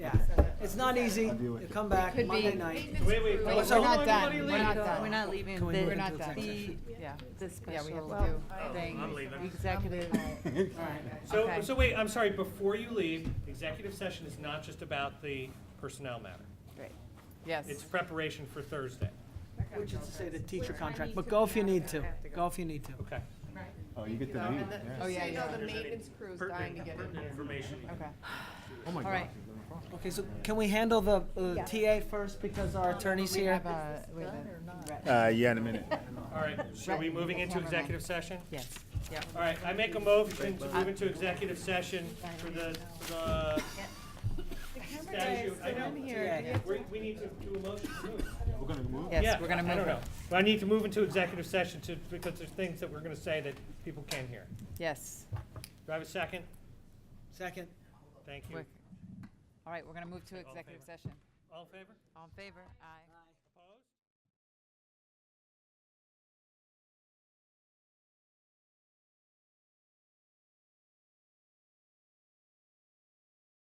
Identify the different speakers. Speaker 1: It's not easy.
Speaker 2: I'll deal with
Speaker 1: You
Speaker 2: it.
Speaker 1: come back
Speaker 3: Could be-
Speaker 1: Monday night.
Speaker 4: Wait, wait,
Speaker 3: Wait,
Speaker 4: hold
Speaker 1: we're
Speaker 4: on,
Speaker 1: not
Speaker 4: everybody
Speaker 3: done.
Speaker 4: leave.
Speaker 3: We're not done.
Speaker 5: We're not leaving.
Speaker 1: Can we
Speaker 5: The-
Speaker 1: move
Speaker 3: We're not
Speaker 1: into
Speaker 3: done.
Speaker 5: The, yeah,
Speaker 3: The
Speaker 5: yeah, we
Speaker 3: special
Speaker 5: have to
Speaker 4: Oh,
Speaker 5: do
Speaker 4: I'm
Speaker 5: thing,
Speaker 4: leaving.
Speaker 5: executive.
Speaker 4: So,
Speaker 5: Okay.
Speaker 4: so wait, I'm sorry, before you leave, executive session is not just about the personnel matter.
Speaker 5: Great. Yes.
Speaker 4: It's preparation for Thursday.
Speaker 1: Which is to say the teacher contract, but go if you need to. Go if you need to.
Speaker 4: Okay.
Speaker 2: Oh, you get to leave, yeah.
Speaker 5: Oh, yeah, yeah.
Speaker 4: the maintenance crew is dying to get in Information.
Speaker 5: Okay.
Speaker 2: Oh, my
Speaker 5: All right.
Speaker 1: Okay, so can we handle the uh, TA first because our attorney's
Speaker 5: We
Speaker 1: here?
Speaker 5: have a, wait a minute.
Speaker 2: Uh, yeah, in a minute.
Speaker 4: All right, so are we moving into executive session?
Speaker 5: Yes. Yep.
Speaker 4: All right, I make a motion to move into executive session for the, for the statute. I know,
Speaker 1: Yeah.
Speaker 4: we, we need to do a motion to move.
Speaker 2: We're gonna move.
Speaker 4: Yeah,
Speaker 5: Yes, we're gonna
Speaker 4: I- I don't
Speaker 5: move it.
Speaker 4: know. But I need to move into executive session to, because there's things that we're gonna say that people can't hear.
Speaker 5: Yes.
Speaker 4: Do I have a second?
Speaker 1: Second.
Speaker 4: Thank
Speaker 5: We're-
Speaker 4: you.
Speaker 5: All right, we're gonna move to
Speaker 4: all in
Speaker 5: executive
Speaker 4: favor?
Speaker 5: session.
Speaker 4: All in favor?
Speaker 5: All in favor? Aye.